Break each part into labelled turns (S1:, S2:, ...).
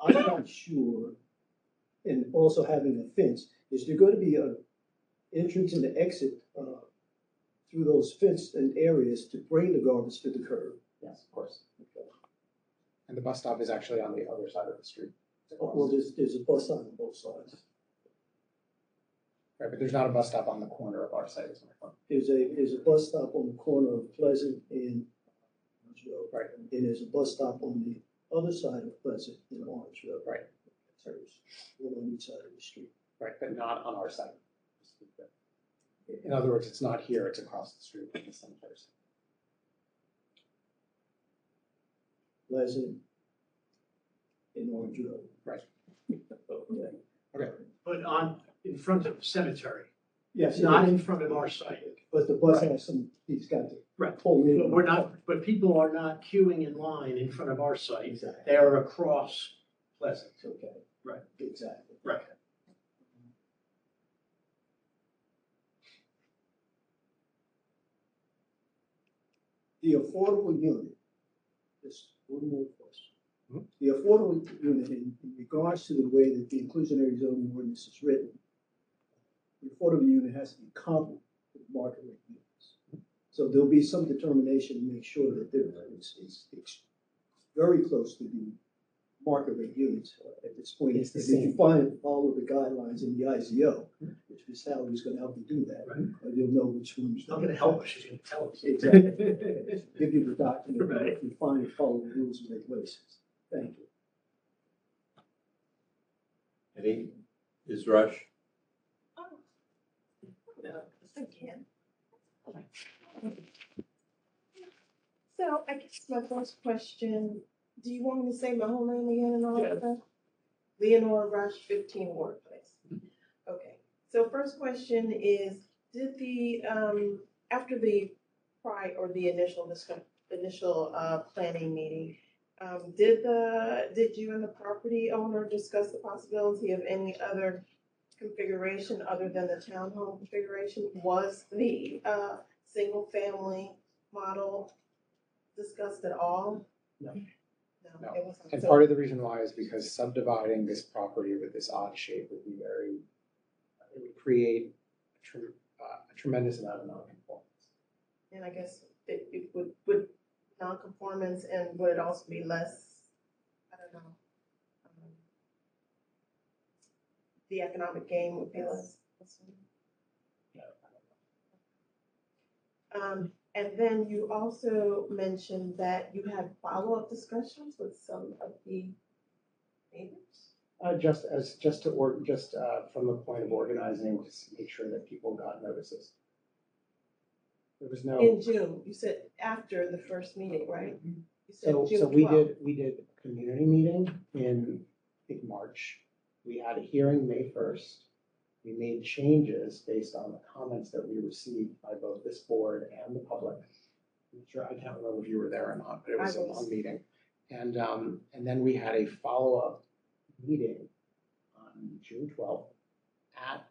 S1: I'm not sure, and also having a fence, is there gonna be a entrance and an exit, uh, through those fenced and areas to bring the garbage to the curb?
S2: Yes, of course. And the bus stop is actually on the other side of the street.
S1: Well, there's, there's a bus on both sides.
S2: Right, but there's not a bus stop on the corner of our site, is my point.
S1: There's a, there's a bus stop on the corner of Pleasant and Orange Road.
S2: Right.
S1: And there's a bus stop on the other side of Pleasant and Orange Road.
S2: Right.
S1: There's one on each side of the street.
S2: Right, but not on our site. In other words, it's not here, it's across the street from the cemeteries.
S1: Pleasant and Orange Road.
S2: Right.
S1: Okay.
S3: but on, in front of cemetery,
S1: Yes,
S3: not
S1: not,
S3: in front of our site.
S1: but the bus has some, he's got to.
S3: Right.
S1: Pull in.
S3: But we're not, but people are not queuing in line in front of our site.
S1: Exactly.
S3: They are across Pleasant.
S1: It's okay.
S3: Right.
S1: Exactly.
S3: Right.
S1: The affordable unit, just one more
S2: Mhm.
S1: question. The affordable unit in in regards to the way that the inclusionary zoning ordinance is written, the affordable unit has to be comparable to the market rate units. So there'll be some determination to make sure that there, it's, it's, it's very close to the market rate units uh, at this point.
S2: It's the
S1: If you
S2: same.
S1: Find, follow the guidelines in the IZO, which Ms. Hallie's gonna help you do that.
S3: Right.
S1: And you'll know which ones.
S3: She's not gonna help us, she's gonna tell us.
S1: Exactly. Give you the document, and
S3: Right.
S1: if you find and follow the rules and regulations. Thank you.
S4: Any, is Rush?
S5: Again. So I guess my first question, do you want me to say my whole name again and all
S3: Yeah.
S5: that stuff? Leonora Rush, fifteen Ward Place. Okay, so first question is, did the, um, after the pri, or the initial, discuss- initial, uh, planning meeting, um, did the, did you and the property owner discuss the possibility of any other configuration other than the townhome configuration? Was the uh single family model discussed at all?
S3: No.
S5: No, it wasn't.
S2: And
S5: So-
S2: part of the reason why is because subdividing this property with this odd shape would be very, it would create a trem- uh, a tremendous amount of non-conformance.
S5: And I guess it it would would non-conformance and would it also be less, I don't know. um, The economic gain would be less. Um, and then you also mentioned that you had follow-up discussions with some of the neighbors.
S2: Uh, just as, just to or, just, uh, from the point of organizing, just make sure that people got notices. There was no. Mm-hmm.
S5: In June, you said after the first meeting, right? You said
S2: So, so
S5: June
S2: we
S5: 12th.
S2: did, we did a community meeting in, I think, March. We had a hearing May first. We made changes based on the comments that we received by both this board and the public. I'm sure, I can't remember if you were there or not, but it was a
S5: I was.
S2: long meeting. And, um, and then we had a follow-up meeting on June twelfth at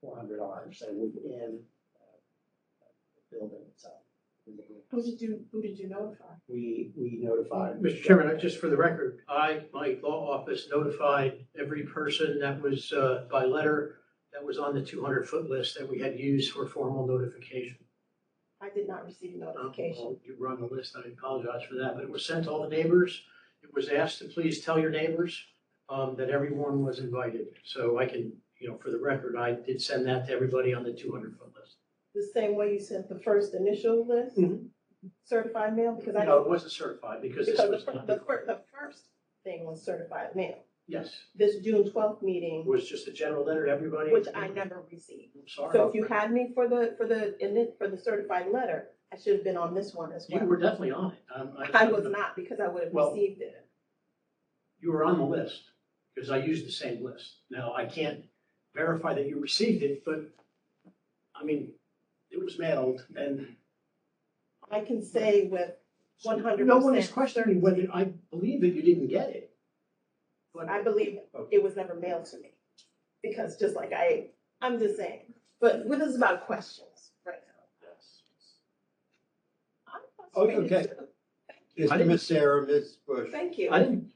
S2: four hundred Orange, so within uh, the building itself. within the
S5: Who
S2: house.
S5: Oh, did you, who did you notify?
S2: We, we notified.
S3: Mr. Chairman, I- just for the record, I, my law office notified every person that was, uh, by letter, that was on the two hundred foot list that we had used for formal notification.
S5: I did not receive
S3: Um,
S5: notification.
S3: well, You were on the list, I apologize for that, but it was sent to all the neighbors. It was asked to please tell your neighbors um, that everyone was invited. So I can, you know, for the record, I did send that to everybody on the 200-foot list.
S5: The same way you sent the first initial list,
S3: Mhm.
S5: certified mail, because I
S3: No, it
S5: didn't,
S3: wasn't certified because this
S5: because the,
S3: was
S5: fir-
S3: not,
S5: the fir- the first thing was certified mail.
S3: yes,
S5: This June twelfth
S3: it
S5: meeting,
S3: was just a general letter to everybody.
S5: which I never received.
S3: I'm
S5: So if you
S3: sorry.
S5: had me for the, for the, in it, for the certified letter, I should have been on this one as
S3: You
S5: well.
S3: were definitely on it. Um,
S5: I was not, because I would have
S3: Well,
S5: received it.
S3: You were on the list because I used the same list. Now, I can't verify that you received it, but I mean, it was mailed and
S5: I can say with one hundred percent.
S3: No one is questioning whether, I believe that you didn't get it. But
S5: I believe it was never mailed to me, because just like I, I'm just saying, but this is about questions right now. I'm
S4: Okay.
S5: frustrated too.
S4: Mr. Sarah, Ms. Bush?
S5: Thank you.
S3: I didn't,